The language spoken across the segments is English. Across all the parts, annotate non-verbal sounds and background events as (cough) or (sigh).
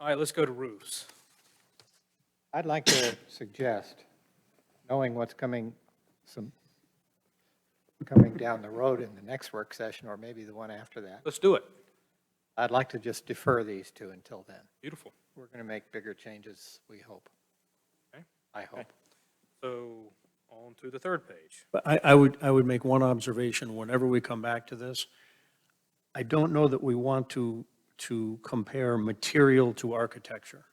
All right, let's go to roofs. I'd like to suggest, knowing what's coming, some, coming down the road in the next work session, or maybe the one after that, Let's do it. I'd like to just defer these two until then. Beautiful. We're going to make bigger changes, we hope. Okay. I hope. So on to the third page. But I, I would, I would make one observation whenever we come back to this. I don't know that we want to, to compare material to architecture.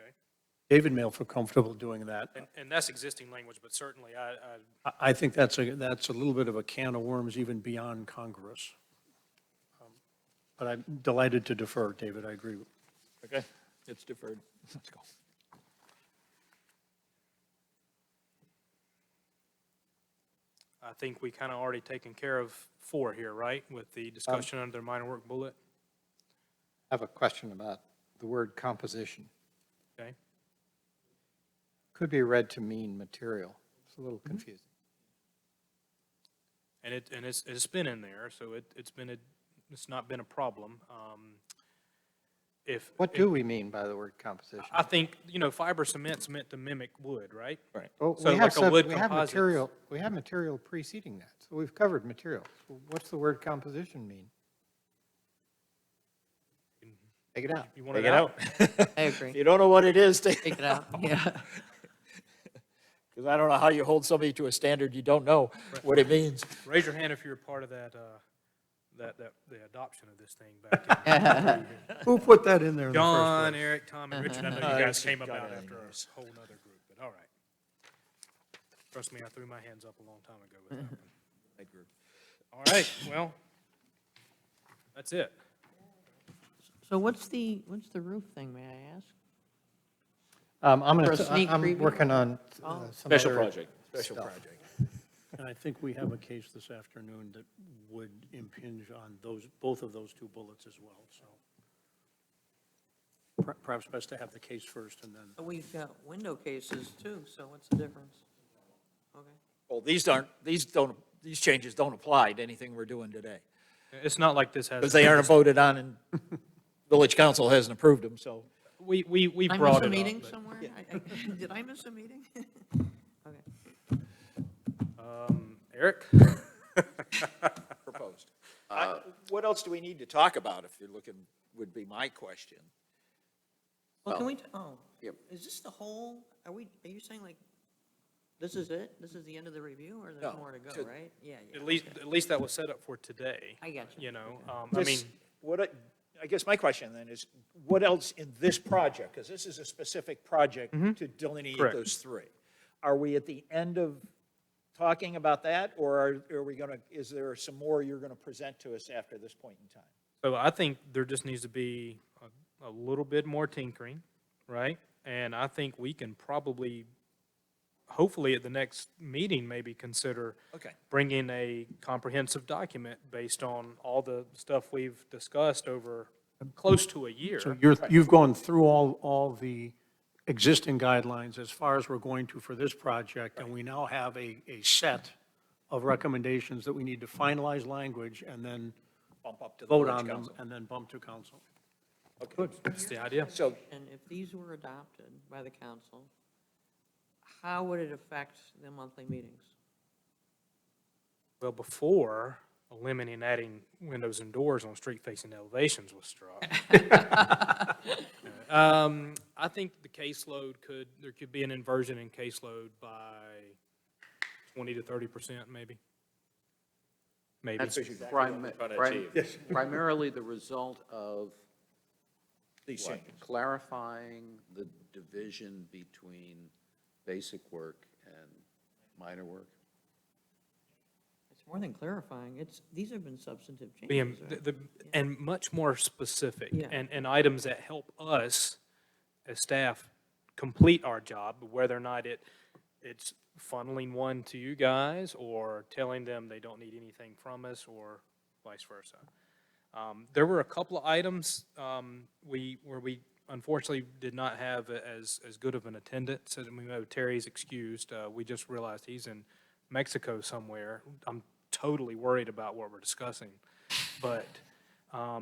Okay. David may feel comfortable doing that. And, and that's existing language, but certainly I, I, I, I think that's a, that's a little bit of a can of worms even beyond Congress. Um, But I'm delighted to defer, David, I agree. Okay, it's deferred. Let's go. I think we kind of already taken care of four here, right? With the discussion under minor work bullet, I have a question about the word composition. okay? Could be read to mean material. It's a little Mm-hmm. confusing. And it, and it's, it's been in there, so it, it's been a, it's not been a problem. Um, If. What do we mean by the word composition? I think, you know, fiber cement's meant to mimic wood, right? Right. Well, so Oh, we have like a sub- wood We have composites. material, we have material preceding that, so we've covered material. So What's the word composition mean? Take it out. You want it out? I agree. You don't know what it is, because Take (laughs) it out, yeah. I don't know how you hold somebody to a standard you don't know what it means. Raise your hand if you're a part of that, uh, that, that, the adoption of this thing back (laughs) in. Who put that in there in the first place? John, Eric, Tom, and (laughs) Richard, I know you guys came about after a whole nother group, but all right. Trust me, I threw my hands up a long time ago with (laughs) that one. All right, well, that's it. So what's the, what's the roof thing, may I ask? Um, I'm For a gonna, I- sneak I'm preview? working on uh, some Special other project. Special stuff. project. And I think we have a case this afternoon that would impinge on those, both of those two bullets as well, so. Per- Perhaps best to have the case first and then, But We've got window cases too, so what's the difference? Okay. Well, these aren't, these don't, these changes don't apply to anything we're doing today, It's not like this has. because they aren't voted on and village council hasn't approved them, so. We, we, we Did I miss brought a it meeting up. somewhere? I- I- (laughs) Did I miss a meeting? Okay. but, um, Eric? Proposed. Uh, What else do we need to talk about, if you're looking, would be my question. Well, Well, can we, t- oh, yep. is this the whole, are we, are you saying like, this is it? This is the end of the review, or No, there's more to go, to- right? Yeah, yeah. At least, okay. at least that was set up for today. I got you. You know, um, I mean, This- What, I I guess my question then is, what else in this project? Because this is a specific project Mm-hmm. to delineate Correct. those three. Are we at the end of talking about that, or are- are we going to, is there some more you're going to present to us after this point in time? so I think there just needs to be a, a little bit more tinkering, right? And I think we can probably, hopefully at the next meeting, maybe consider Okay. bringing a comprehensive document based on all the stuff we've discussed over close to a year. so you're, you've gone through all, all the existing guidelines as far as we're going to for this project, and we now have a, a set of recommendations that we need to finalize language and then Bump up to the vote village on them council. and then bump to council. Okay. That's the idea. So, And if these were adopted by the council, how would it affect the monthly meetings? Well, before eliminating adding windows and doors on street-facing elevations was struck. Um, I think the caseload could, there could be an inversion in caseload by twenty to thirty percent, maybe. Maybe. That's primi- prim- primarily the result of these what? changes. clarifying the division between basic work and minor work. It's more than clarifying, it's, these have been substantive Being, changes, right? the, the- and much more specific, Yeah. and, and items that help us as staff complete our job, whether or not it, it's funneling one to you guys, or telling them they don't need anything from us, or vice versa. Um, There were a couple of items, um, we, where we unfortunately did not have a- as, as good of an attendance, and we know Terry's excused, uh, we just realized he's in Mexico somewhere. I'm totally worried about what we're discussing, but, um,